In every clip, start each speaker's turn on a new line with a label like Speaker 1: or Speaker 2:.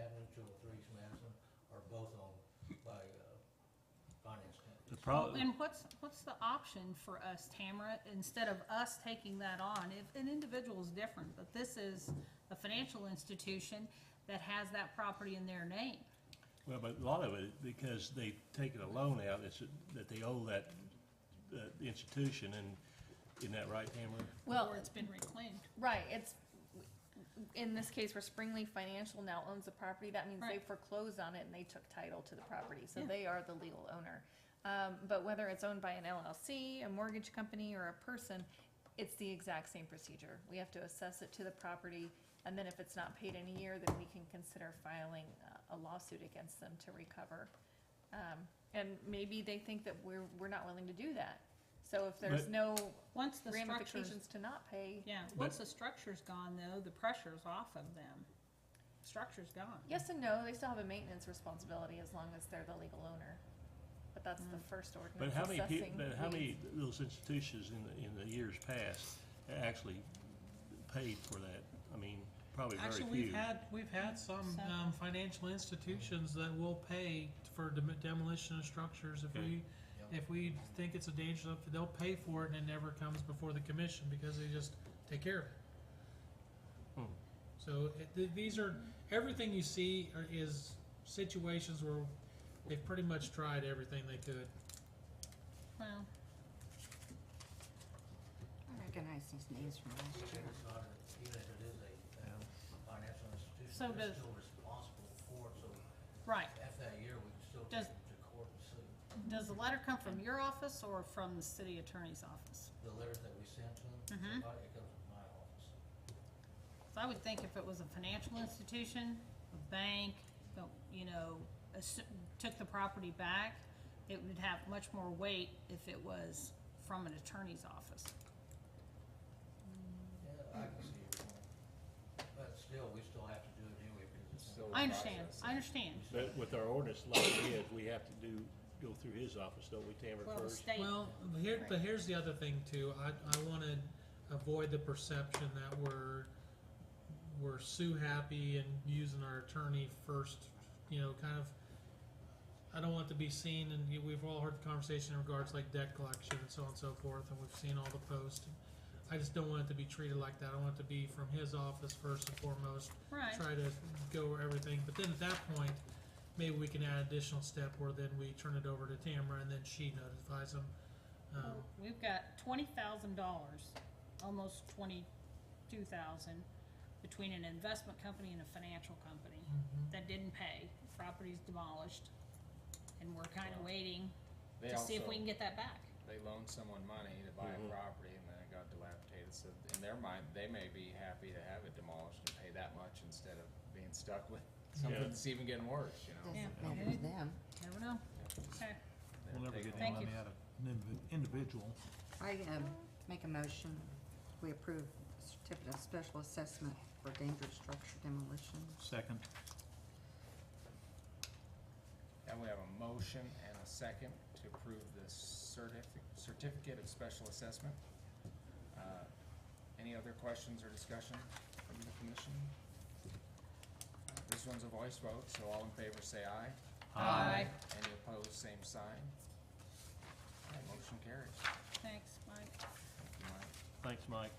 Speaker 1: uh,
Speaker 2: problem.
Speaker 3: And what's, what's the option for us, Tamara, instead of us taking that on? If, an individual is different, but this is a financial institution that has that property in their name.
Speaker 2: Well, but a lot of it, because they've taken a loan out, it's, that they owe that, that institution, and, isn't that right, Tamara?
Speaker 4: Well,
Speaker 3: Or it's been reclaimed.
Speaker 4: right, it's, in this case, where Springley Financial now owns the property, that means they
Speaker 3: Right.
Speaker 4: foreclosed on it and they took title to the property, so
Speaker 3: Yeah.
Speaker 4: they are the legal owner. Um, but whether it's owned by an LLC, a mortgage company, or a person, it's the exact same procedure. We have to assess it to the property, and then if it's not paid in a year, then we can consider filing uh, a lawsuit against them to recover. Um, and maybe they think that we're, we're not willing to do that. So if there's
Speaker 2: But-
Speaker 4: no
Speaker 3: Once the structure's,
Speaker 4: ramifications to not pay,
Speaker 3: yeah, once the structure's gone though, the pressure's off of them. Structure's gone.
Speaker 4: Yes and no, they still have a maintenance responsibility as long as they're the legal owner. But that's the first
Speaker 2: But
Speaker 4: ordinance
Speaker 2: how many people,
Speaker 4: assessing
Speaker 2: but how many
Speaker 4: weeds.
Speaker 2: of those institutions in, the in the years past actually paid for that? I mean, probably very few.
Speaker 5: Actually, we've had, we've had some,
Speaker 3: Several.
Speaker 5: um, financial institutions that will pay for dem- demolition of structures if
Speaker 2: Okay.
Speaker 5: we, if we think it's a danger, they'll pay for it and it never comes before the commission because they just take care of it.
Speaker 2: Hmm.
Speaker 5: So, it, th- these are, everything you see are, is situations where they've pretty much tried everything they could.
Speaker 3: Well,
Speaker 6: I recognize these names from last year.
Speaker 1: Even if it is a a financial
Speaker 3: So
Speaker 1: institution, they're
Speaker 3: does-
Speaker 1: still responsible for it, so
Speaker 3: right.
Speaker 1: after that year, we can still
Speaker 3: Does-
Speaker 1: take them to court and sue.
Speaker 3: Does the letter come from your office or from the city attorney's office?
Speaker 1: The letters that we send to them,
Speaker 3: Mhm.
Speaker 1: somebody- it comes from my office.
Speaker 3: So I would think if it was a financial institution, a bank, uh, you know, assu- took the property back, it would have much more weight if it was from an attorney's office.
Speaker 1: Yeah, I can see your point. But still, we still have to do it anyway because it's.
Speaker 7: Still
Speaker 3: I understand, I understand.
Speaker 2: But with our ordinance like it is, we have to do, go through his office, don't we, Tamara,
Speaker 3: Well, the
Speaker 2: first?
Speaker 3: state,
Speaker 5: Well, here, but here's the other thing too, I, I wanna avoid the perception that we're, we're sue happy and using our attorney first, you know, kind of, I don't want to be seen, and you- we've all heard the conversation in regards like debt collection and so on and so forth, and we've seen all the posts. I just don't want it to be treated like that, I want it to be from his office first and foremost,
Speaker 3: right,
Speaker 5: try to go over everything, but then at that point, maybe we can add additional step where then we turn it over to Tamara and then she notifies them. Um,
Speaker 3: we've got twenty thousand dollars, almost twenty-two thousand, between an investment company and a financial company
Speaker 5: Mm-hmm.
Speaker 3: that didn't pay, property's demolished, and we're kinda
Speaker 7: Wow.
Speaker 3: waiting
Speaker 7: They
Speaker 3: to see if
Speaker 7: also-
Speaker 3: we can get that back.
Speaker 7: They loaned someone money to buy a
Speaker 8: Mm-hmm.
Speaker 2: Mhm.
Speaker 7: property and then it got dilapidated, so in their mind, they may be happy to have it demolished and pay that much instead of being stuck with something
Speaker 2: Yeah.
Speaker 7: that's even getting worse, you know?
Speaker 6: Doesn't matter to them.
Speaker 3: Never know. Okay,
Speaker 7: They're
Speaker 8: We'll never
Speaker 7: taking all-
Speaker 8: get any
Speaker 3: Thank
Speaker 8: money
Speaker 3: you.
Speaker 8: out of an indivi- individual.
Speaker 6: I, um, make a motion, we approve certificate of special assessment for dangerous structure demolition.
Speaker 8: Second.
Speaker 7: And we have a motion and a second to approve the certificate, certificate of special assessment. Uh, Any other questions or discussion from the commission? Uh, This one's a voice vote, so all in favor say aye.
Speaker 3: Aye. Aye.
Speaker 7: Any opposed, same sign. All right, motion carries.
Speaker 3: thanks, Mike.
Speaker 7: Thank you, Mike.
Speaker 2: Thanks, Mike.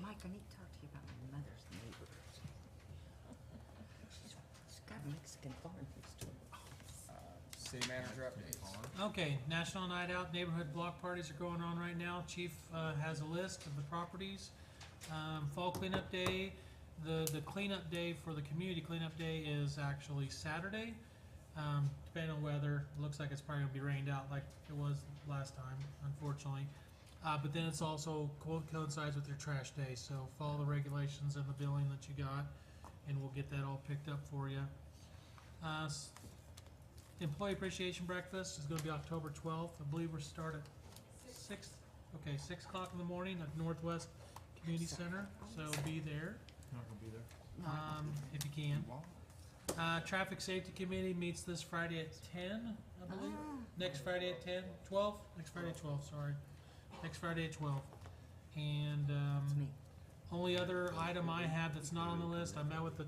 Speaker 6: Mike, I need to talk to you about my mother's neighbor. She's, she's got Mexican farm next door.
Speaker 7: Uh, City manager updates.
Speaker 5: Okay, National Night Out neighborhood block parties are going on right now. Chief uh, has a list of the properties. Um, Fall cleanup day, the, the cleanup day for the community cleanup day is actually Saturday. Um, depending on weather, looks like it's probably gonna be rained out like it was last time, unfortunately. Uh, but then it's also co- coincides with your trash day, so follow the regulations and the billing that you got, and we'll get that all picked up for you. Uh, s- Employee appreciation breakfast is gonna be October twelfth, I believe we're start at six, okay, six o'clock in the morning at Northwest Community Center, so be there,
Speaker 8: Not gonna be there.
Speaker 6: No, I won't
Speaker 5: um,
Speaker 6: be
Speaker 5: if you can. Uh, Traffic Safety Committee meets this Friday at ten, I believe,
Speaker 6: Ah.
Speaker 5: next Friday at ten, twelve, next Friday at twelve, sorry, next Friday at twelve. And,
Speaker 6: there. It's
Speaker 5: um,
Speaker 6: me.
Speaker 5: only other item I have that's not on the list, I met with the